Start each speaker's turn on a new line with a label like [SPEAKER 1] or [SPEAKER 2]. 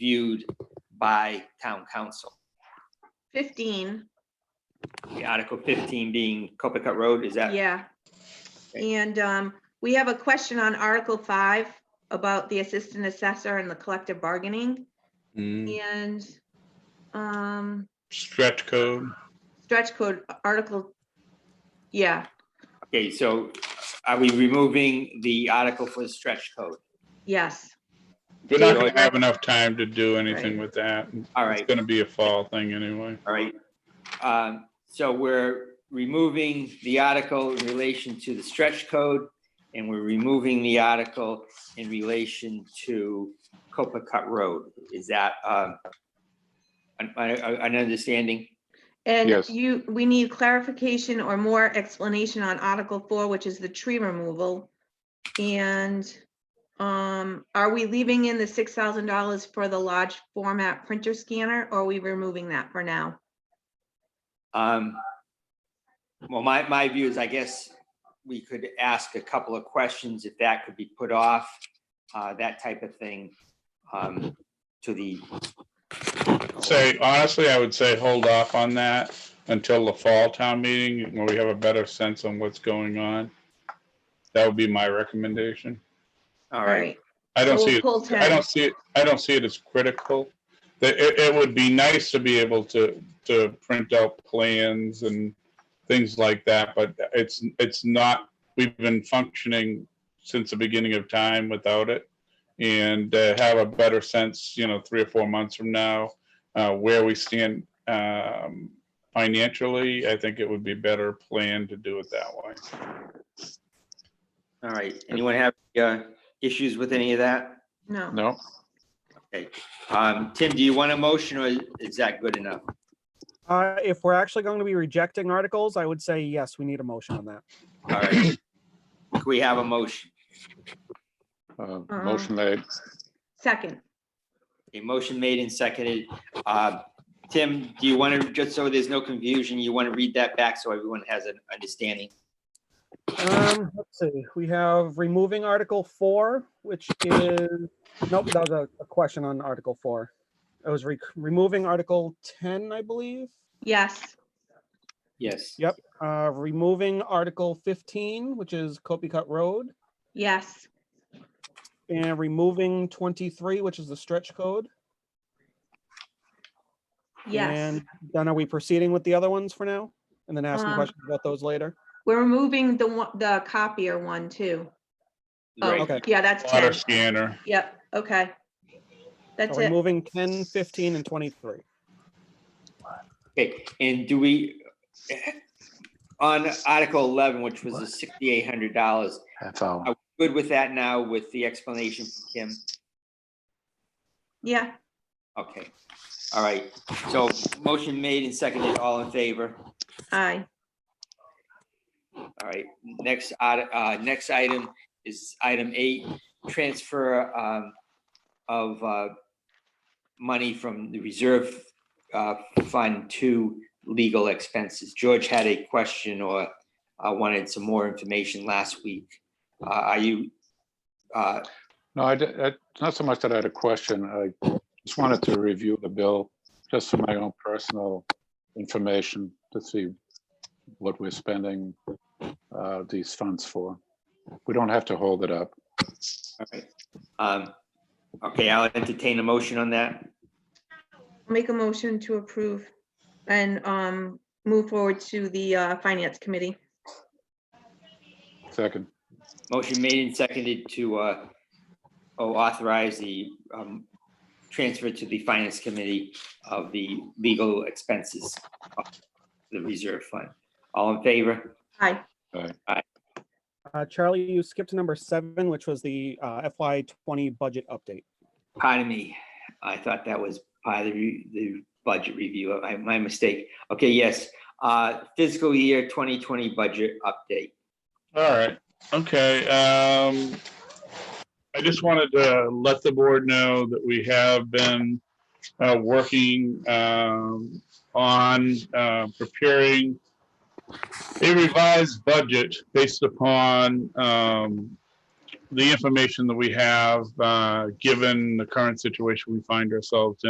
[SPEAKER 1] viewed by town council.
[SPEAKER 2] 15,
[SPEAKER 1] The Article fifteen being Copacut Road, is that?
[SPEAKER 2] yeah.
[SPEAKER 1] Okay.
[SPEAKER 2] And um, we have a question on Article 5 about the assistant assessor and the collective bargaining
[SPEAKER 3] Mm,
[SPEAKER 2] and um,
[SPEAKER 3] Stretch code.
[SPEAKER 2] stretch code article. Yeah,
[SPEAKER 1] Okay, so are we removing the article for the stretch code?
[SPEAKER 2] yes,
[SPEAKER 3] We're not
[SPEAKER 1] Yeah.
[SPEAKER 3] gonna have enough time to do anything
[SPEAKER 2] Right.
[SPEAKER 3] with that.
[SPEAKER 1] All
[SPEAKER 3] It's
[SPEAKER 1] right,
[SPEAKER 3] gonna be a fall thing anyway.
[SPEAKER 1] all right. Um, so we're removing the article in relation to the stretch code, and we're removing the article in relation to Copacut Road. Is that, um, an, an- an understanding?
[SPEAKER 2] and
[SPEAKER 4] Yes.
[SPEAKER 2] you, we need clarification or more explanation on Article 4, which is the tree removal. And um, are we leaving in the $6,000 for the large format printer scanner or are we removing that for now?
[SPEAKER 1] Um, well, my, my view is, I guess, we could ask a couple of questions if that could be put off, uh, that type of thing, um, to the.
[SPEAKER 3] Say, honestly, I would say hold off on that until the fall town meeting when we have a better sense on what's going on. That would be my recommendation.
[SPEAKER 1] All
[SPEAKER 2] All
[SPEAKER 1] right,
[SPEAKER 2] right.
[SPEAKER 3] I don't
[SPEAKER 2] so we'll
[SPEAKER 3] see, it.
[SPEAKER 2] pull
[SPEAKER 3] I
[SPEAKER 2] 10.
[SPEAKER 3] don't see, it. I don't see it as critical. That it, it would be nice to be able to, to print out plans and things like that, but it's, it's not, we've been functioning since the beginning of time without it. And uh, have a better sense, you know, three or four months from now, uh, where we stand um, financially, I think it would be better plan to do it that way.
[SPEAKER 1] all right. Anyone have, uh, issues with any of that?
[SPEAKER 2] No.
[SPEAKER 4] No,
[SPEAKER 1] Um, Tim, do you want a motion or is that good enough?
[SPEAKER 5] Uh, if we're actually going to be rejecting articles, I would say yes, we need a motion on that.
[SPEAKER 1] All right. Can we have a motion?
[SPEAKER 4] uh, motion made.
[SPEAKER 2] Uh-uh. Second,
[SPEAKER 1] A motion made and seconded. Uh, Tim, do you want to, just so there's no confusion, you want to read that back so everyone has an understanding?
[SPEAKER 5] Um, let's see, we have removing Article four, which is, nope, that was a, a question on Article four. It was re- removing Article ten, I believe,
[SPEAKER 2] yes,
[SPEAKER 1] Yes.
[SPEAKER 5] uh, removing Article fifteen, which is Copycut Road,
[SPEAKER 2] yes,
[SPEAKER 5] and removing twenty-three, which is the stretch code.
[SPEAKER 2] yes.
[SPEAKER 5] And Then are we proceeding with the other ones for now? And then asking
[SPEAKER 2] Um,
[SPEAKER 5] questions about those later?
[SPEAKER 2] We're removing the one, the copier one too.
[SPEAKER 1] Right.
[SPEAKER 2] Oh,
[SPEAKER 5] Okay.
[SPEAKER 2] yeah, that's
[SPEAKER 3] Water
[SPEAKER 2] ten.
[SPEAKER 3] scanner,
[SPEAKER 2] Yep, okay. That's
[SPEAKER 5] Are we
[SPEAKER 2] it.
[SPEAKER 5] moving 10, 15, and twenty-three?
[SPEAKER 1] Okay, and do we, on Article eleven, which was the sixty-eight hundred dollars,
[SPEAKER 4] Half hour.
[SPEAKER 1] good with that now with the explanation from Kim?
[SPEAKER 2] Yeah,
[SPEAKER 1] Okay, all right, so motion made and seconded, all in favor?
[SPEAKER 2] aye.
[SPEAKER 1] All right, next, art- uh, next item is item eight, transfer, um, of, uh, money from the reserve, uh, fund to legal expenses. George had a question or, uh, wanted some more information last week. Uh, are you, uh,
[SPEAKER 4] No, I, di- I- it's not so much that I had a question. I just wanted to review the bill just for my own personal information to see what we're spending uh, these funds for. We don't have to hold it up.
[SPEAKER 1] all right, um, okay, I'll entertain a motion on that.
[SPEAKER 2] Make a motion to approve and um move forward to the uh finance committee.
[SPEAKER 4] Second,
[SPEAKER 1] Motion made and seconded to, uh, oh, authorize the, um, transfer to the finance committee of the legal expenses of the reserve fund. All in favor?
[SPEAKER 2] Aye,
[SPEAKER 5] Uh, Charlie, you skipped to number seven, which was the uh, FY twenty budget update.
[SPEAKER 1] Pardon me, I thought that was part of the, re- the budget review, I, my mistake. Okay, yes, uh, fiscal year twenty twenty budget update.
[SPEAKER 3] all right, okay, um. I just wanted to let the board know that we have been, uh, working, um, on, uh, preparing. A revised budget based upon, um,
[SPEAKER 6] the information that we have, uh, given the current situation we find ourselves in.